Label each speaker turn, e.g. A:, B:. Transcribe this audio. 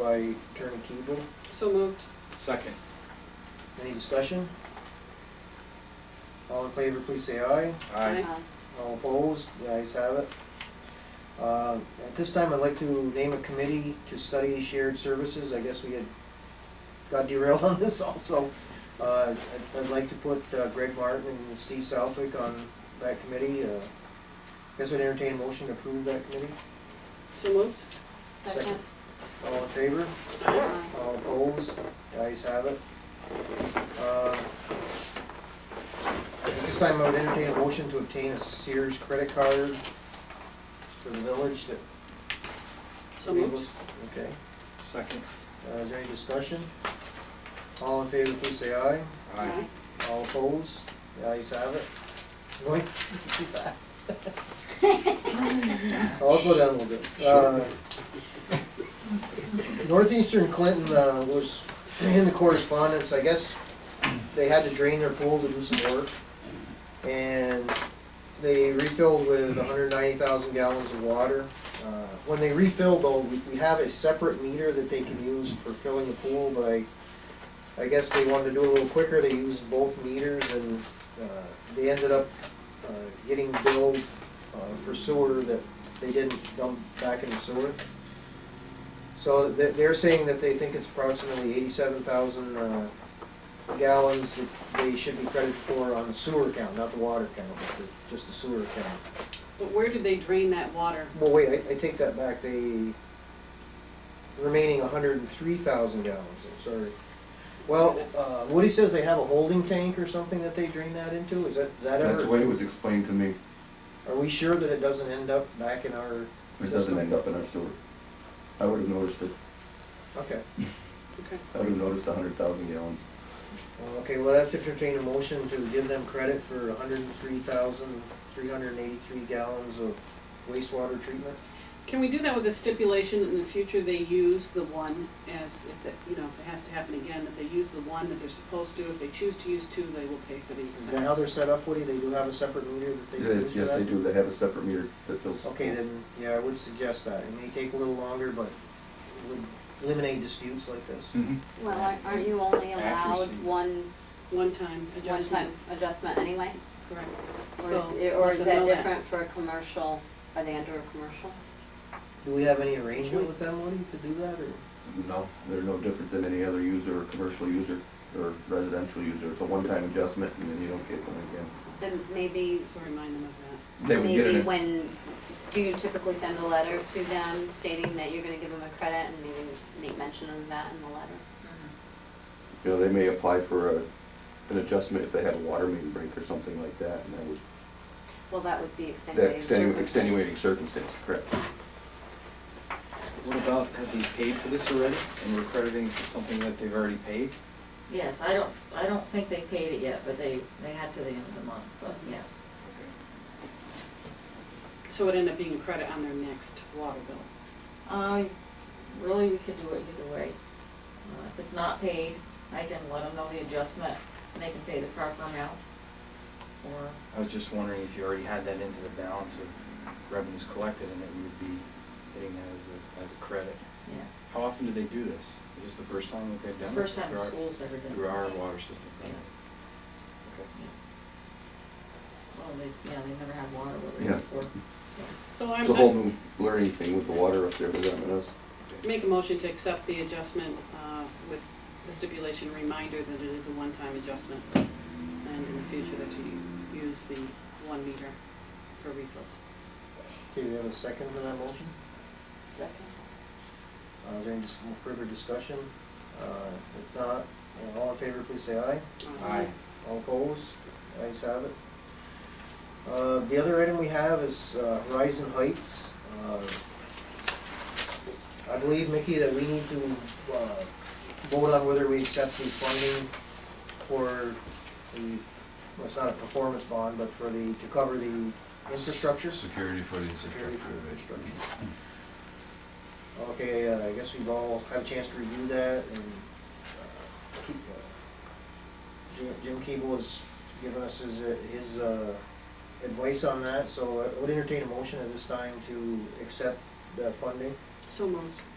A: by Attorney Keeble.
B: So moved.
C: Second.
A: Any discussion? All in favor, please say aye.
C: Aye.
A: All opposed, the ayes have it. Uh, At this time, I'd like to name a committee to study shared services. I guess we had got derailed on this also. Uh, I'd- I'd like to put uh, Greg Martin and Steve Southwick on that committee. Uh, I Guess I'd entertain a motion to approve that committee.
B: So moved.
A: Second. All in favor?
B: Aye.
A: All Uh, opposed? The ayes have it. Uh, At this time, I would entertain a motion to obtain a Sears credit card for the village that...
B: So moved.
A: Okay.
C: Second.
A: Uh, Is there any discussion? All in favor, please say aye.
C: Aye.
A: All opposed? The ayes have it. Going too fast. I'll slow down a little bit. Uh, Northeastern Clinton uh, was in the correspondence, I guess they had to drain their pool to do some work. And they refilled with hundred ninety thousand gallons of water. Uh, When they refill though, we, we have a separate meter that they can use for filling the pool, but I, I guess they wanted to do it a little quicker, they used both meters and, uh, they ended up, uh, getting billed, uh, for sewer that they didn't dump back in the sewer. So they're, they're saying that they think it's approximately eighty-seven thousand, uh, gallons that they should be credited for on the sewer count, not the water count, but the, just the sewer count.
B: But where did they drain that water?
A: Well, wait, I, I take that back, they, remaining hundred and three thousand gallons, I'm sorry. Well, uh, Woody says they have a holding tank or something that they drain that into, is that, is that
D: That's the way
A: ever?
D: it was explained to me.
A: Are we sure that it doesn't end up back in our
D: It
A: system?
D: doesn't end up in our sewer. I would have noticed it.
A: Okay,
B: Okay.
D: I would have noticed a hundred thousand gallons.
A: Well, okay, well, that's if entertain a motion to give them credit for hundred and three thousand, three hundred and eighty-three gallons of wastewater treatment?
B: Can we do that with a stipulation that in the future they use the one as, if that, you know, if it has to happen again, that they use the one that they're supposed to. If they choose to use two, they will pay for the expense.
A: Is that how they're set up, Woody, they do have a separate meter that they
D: Yes,
A: use for
D: yes,
A: that?
D: they do. They have a separate meter that fills.
A: Okay, then, yeah, I would suggest that. It may take a little longer, but it would eliminate disputes like this.
D: Mhm.
E: Well, aren't- aren't you only
C: Accuracy.
E: allowed one,
B: One-time
E: one
B: adjustment.
E: time adjustment anyway?
B: Correct.
E: Or
B: So,
E: is, or
B: let
E: is
B: them
E: that
B: know that.
E: different for a commercial, are they under a commercial?
A: Do we have any arrangement with them, Woody, to do that, or?
D: No, they're no different than any other user, or commercial user, or residential user. It's a one-time adjustment and then you don't get one again.
E: Then maybe,
B: So remind them of
D: They would get
E: maybe
D: it.
E: when, do you typically send a letter to them stating that you're gonna give them a credit and maybe make mention of that in the letter?
D: You know, they may apply for a, an adjustment if they had a water main break or something like that, and that would,
E: Well, that would
D: that
E: be extenuating
D: extenu-
E: circumstance.
D: extenuating circumstance, correct?
C: What about, have they paid for this already? And we're crediting for something that they've already paid?
F: Yes, I don't, I don't think they paid it yet, but they, they had to the end of the month, but yes.
B: that. So it ended up being a credit on their next water bill.
F: Uh, really, we could do it either way. Uh, If it's not paid, I can let them know the adjustment, and they can pay the proper amount. Or,
C: I was just wondering if you already had that into the balance of revenues collected and that we would be hitting that as a, as a credit.
F: yes.
C: How often do they do this? Is this the first time that they've
F: It's the
C: done this?
F: first time
C: Through our-
F: school's ever done
C: Through our
F: this.
C: water system.
F: Yeah.
C: Okay.
F: Well, they, yeah, they never had water with
D: Yeah.
F: us before.
B: So I'm,
D: It's a
B: I
D: whole new learning thing with the water up there with them and us.
B: make a motion to accept the adjustment uh, with the stipulation reminder that it is a one-time adjustment. And in the future that you use the one meter for refills.
A: Okay, we have a second for that motion?
E: Second.
A: Uh, is there any dis- further discussion? Uh, if not, uh, all in favor, please say aye.
B: Uh,
C: Aye.
A: All opposed? The ayes have it. Uh, the other item we have is, uh, Horizon Heights. Uh, I believe, Mickey, that we need to, uh, vote on whether we accept the funding for the, well, it's not a performance bond, but for the, to cover the infrastructure.
G: Security for the
A: Security for the
G: infrastructure.
A: infrastructure. Okay, uh, I guess we've all had a chance to review that, and uh, Ke- uh, Jim- Jim Keeble has given us his, uh, his uh, advice on that, so I would entertain a motion at this time to accept that funding.
B: So moved.